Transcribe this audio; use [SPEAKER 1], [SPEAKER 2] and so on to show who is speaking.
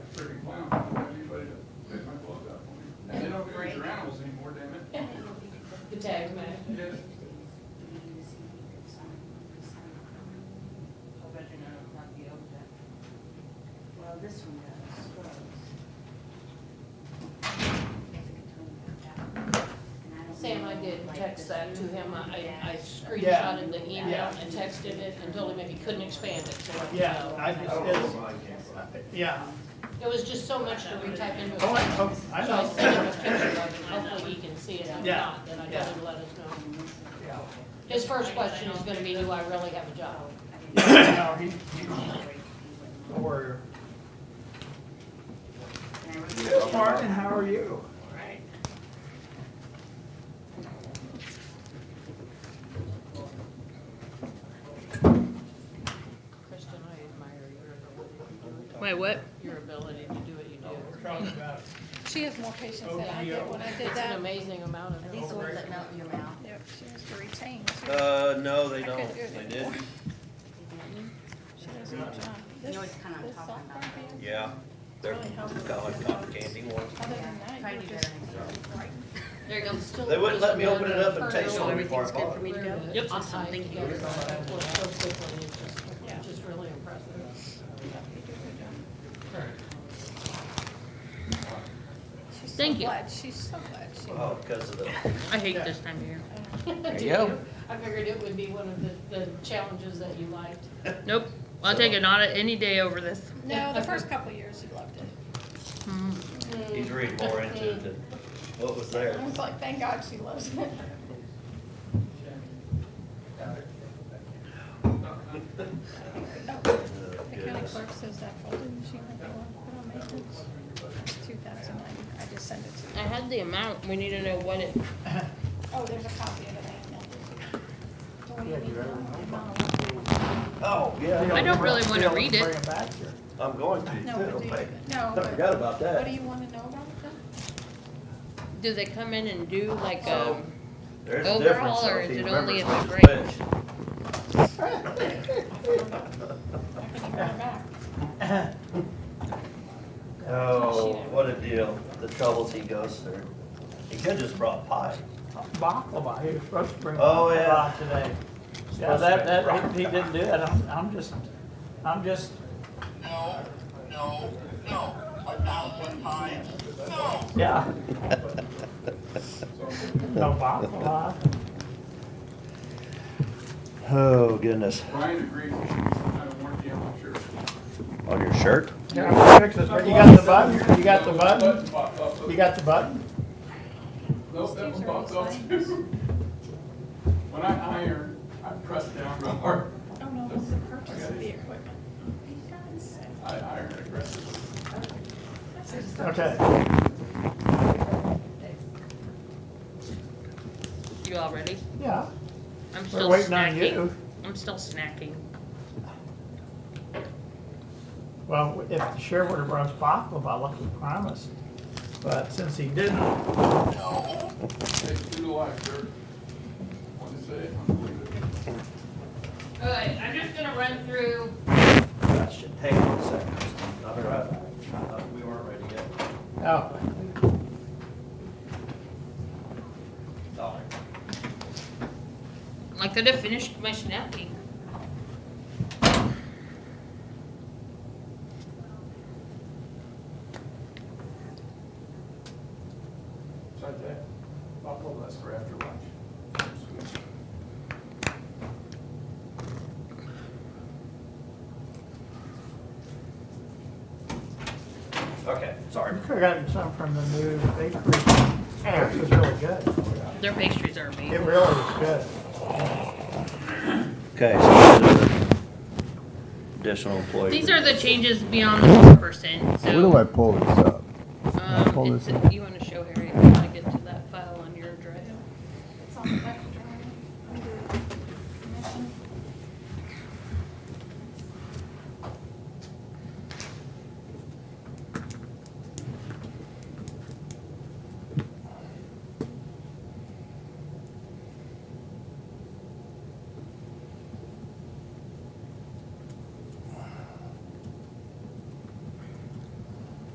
[SPEAKER 1] did text that to him, I, I
[SPEAKER 2] Yeah.
[SPEAKER 1] screenshotted the email
[SPEAKER 2] Yeah.
[SPEAKER 1] and texted it and told him if he couldn't expand it, so. let me
[SPEAKER 2] Yeah,
[SPEAKER 1] know.
[SPEAKER 2] I,
[SPEAKER 3] I don't know
[SPEAKER 4] Uh,
[SPEAKER 3] where
[SPEAKER 2] it's,
[SPEAKER 3] mine came from.
[SPEAKER 2] yeah.
[SPEAKER 1] It was just so much to retype into.
[SPEAKER 2] Oh, I, oh, I
[SPEAKER 1] So I
[SPEAKER 2] know.
[SPEAKER 1] sent him a picture of it, hopefully he can see it, if
[SPEAKER 2] Yeah.
[SPEAKER 1] not, then I
[SPEAKER 2] Yeah.
[SPEAKER 1] told him to let us know.
[SPEAKER 2] Yeah.
[SPEAKER 1] His first question is gonna be, do I really have a job?
[SPEAKER 2] No, he, he, don't worry. Yes, Martin, how are you?
[SPEAKER 1] Kristen, I admire your,
[SPEAKER 5] Wait, what?
[SPEAKER 1] your ability to do what you
[SPEAKER 2] We're
[SPEAKER 1] do.
[SPEAKER 2] talking about
[SPEAKER 5] She has more patience than I did when I did
[SPEAKER 1] It's an
[SPEAKER 5] that.
[SPEAKER 1] amazing amount of.
[SPEAKER 6] These are the ones that melt in your mouth.
[SPEAKER 5] Yep, she has to retain.
[SPEAKER 4] Uh, no, they
[SPEAKER 5] I couldn't
[SPEAKER 4] don't.
[SPEAKER 5] do it
[SPEAKER 4] They did.
[SPEAKER 5] anymore. She doesn't want to.
[SPEAKER 6] You know what kind I'm
[SPEAKER 5] This
[SPEAKER 6] talking
[SPEAKER 5] soft
[SPEAKER 6] about,
[SPEAKER 5] right
[SPEAKER 6] don't
[SPEAKER 5] here,
[SPEAKER 4] Yeah. They're
[SPEAKER 5] Really helpful.
[SPEAKER 4] kind of like cotton candy ones.
[SPEAKER 5] Other
[SPEAKER 6] Yeah,
[SPEAKER 5] than that,
[SPEAKER 6] Try
[SPEAKER 5] you
[SPEAKER 6] to
[SPEAKER 5] were
[SPEAKER 6] do
[SPEAKER 5] just.
[SPEAKER 6] better next time.
[SPEAKER 1] There you go. Still
[SPEAKER 4] They wouldn't let me
[SPEAKER 1] just
[SPEAKER 4] open it up and
[SPEAKER 1] another
[SPEAKER 4] taste
[SPEAKER 1] hurdle.
[SPEAKER 4] it before I
[SPEAKER 6] Everything's good
[SPEAKER 4] bought
[SPEAKER 6] for
[SPEAKER 4] it.
[SPEAKER 6] me to go?
[SPEAKER 1] Yep.
[SPEAKER 6] Awesome, thank you.
[SPEAKER 1] Well, so quickly, it's just- it's Just really impressive.
[SPEAKER 5] she's so
[SPEAKER 7] Thank you.
[SPEAKER 5] glad. She's so glad. She
[SPEAKER 6] Uh-huh.
[SPEAKER 4] Oh, because of the,
[SPEAKER 7] I hate this time of year.
[SPEAKER 1] There
[SPEAKER 4] you go.
[SPEAKER 1] I figured it would be one of the, the challenges that you liked.
[SPEAKER 7] Nope, I'll take an audit any day over this.
[SPEAKER 5] No, the first couple of years you loved it.
[SPEAKER 4] he's reading more into it than what was there.
[SPEAKER 5] I was like, thank God she loves it. The county
[SPEAKER 4] Oh, Goodness.
[SPEAKER 5] clerk says that folding machine that they want to put on maintenance, two thousand nine, I just sent it to
[SPEAKER 7] I had the amount, we need to know what it,
[SPEAKER 5] Oh, there's a copy of it, I emailed it. So what do you need now?
[SPEAKER 4] Oh, yeah.
[SPEAKER 7] I don't really wanna read
[SPEAKER 2] Bring
[SPEAKER 7] it.
[SPEAKER 2] it back here.
[SPEAKER 4] I'm going to.
[SPEAKER 5] No, but
[SPEAKER 4] too.
[SPEAKER 5] do you-
[SPEAKER 4] I
[SPEAKER 5] no,
[SPEAKER 4] forgot
[SPEAKER 5] but
[SPEAKER 4] about
[SPEAKER 5] what do
[SPEAKER 4] that.
[SPEAKER 5] you want to know about it then?
[SPEAKER 7] Do they come in and do like, um,
[SPEAKER 4] There is a difference.
[SPEAKER 7] overall, or
[SPEAKER 4] though, if
[SPEAKER 7] is
[SPEAKER 4] he
[SPEAKER 7] it only
[SPEAKER 4] remembers
[SPEAKER 7] if
[SPEAKER 4] which
[SPEAKER 7] it's
[SPEAKER 4] is
[SPEAKER 5] I can email it back.
[SPEAKER 4] which. Oh, what a deal. The troubles he goes through. He could've just brought pie.
[SPEAKER 2] Baklava, he was supposed to bring
[SPEAKER 4] Oh, yeah.
[SPEAKER 2] baklava today. Yeah,
[SPEAKER 4] Supposed to
[SPEAKER 2] that,
[SPEAKER 4] make
[SPEAKER 2] that,
[SPEAKER 4] rock
[SPEAKER 2] he he didn't do it, I'm, I'm just, I'm just,
[SPEAKER 8] No, no, no, a thousand times, no.
[SPEAKER 2] yeah. No baklava.
[SPEAKER 4] Oh, goodness.
[SPEAKER 9] Brian agreed, I don't warranty, I'm not sure.
[SPEAKER 4] On your shirt?
[SPEAKER 2] Here, I'll fix it. You got the button, you got the button,
[SPEAKER 9] Popped up,
[SPEAKER 2] you got the button?
[SPEAKER 9] nope, that one popped up too. When I iron, I press down real hard,
[SPEAKER 5] Oh, no, it's the purchase of the equipment.
[SPEAKER 9] I iron aggressively.
[SPEAKER 2] Okay.
[SPEAKER 7] you all ready?
[SPEAKER 2] Yeah,
[SPEAKER 7] I'm
[SPEAKER 2] we're
[SPEAKER 7] still
[SPEAKER 2] waiting on
[SPEAKER 7] snacking.
[SPEAKER 2] you.
[SPEAKER 7] I'm still snacking.
[SPEAKER 2] Well, if the sheriff would have brought us baklava, like he promised, but since he didn't,
[SPEAKER 9] Take through the life, sir. Want to say, it, unbelievable.
[SPEAKER 1] All right, I'm just gonna run through
[SPEAKER 4] That should take a second. I'll be right back. I thought We weren't ready yet.
[SPEAKER 2] oh,
[SPEAKER 4] Sorry.
[SPEAKER 7] I could have finished my snacking.
[SPEAKER 9] Try that. Pop up, that's for after lunch. Sweet.
[SPEAKER 4] Okay, sorry.
[SPEAKER 2] we could have gotten some from the new bakery. It was really good.
[SPEAKER 7] Their pastries are
[SPEAKER 2] It
[SPEAKER 7] amazing.
[SPEAKER 2] really was good.
[SPEAKER 4] Okay, so these are the additional employee.
[SPEAKER 7] These are the changes beyond the four percent, so.
[SPEAKER 10] Where do I pull this up?
[SPEAKER 7] Um,
[SPEAKER 10] pull
[SPEAKER 7] it's,
[SPEAKER 10] this up?
[SPEAKER 7] you wanna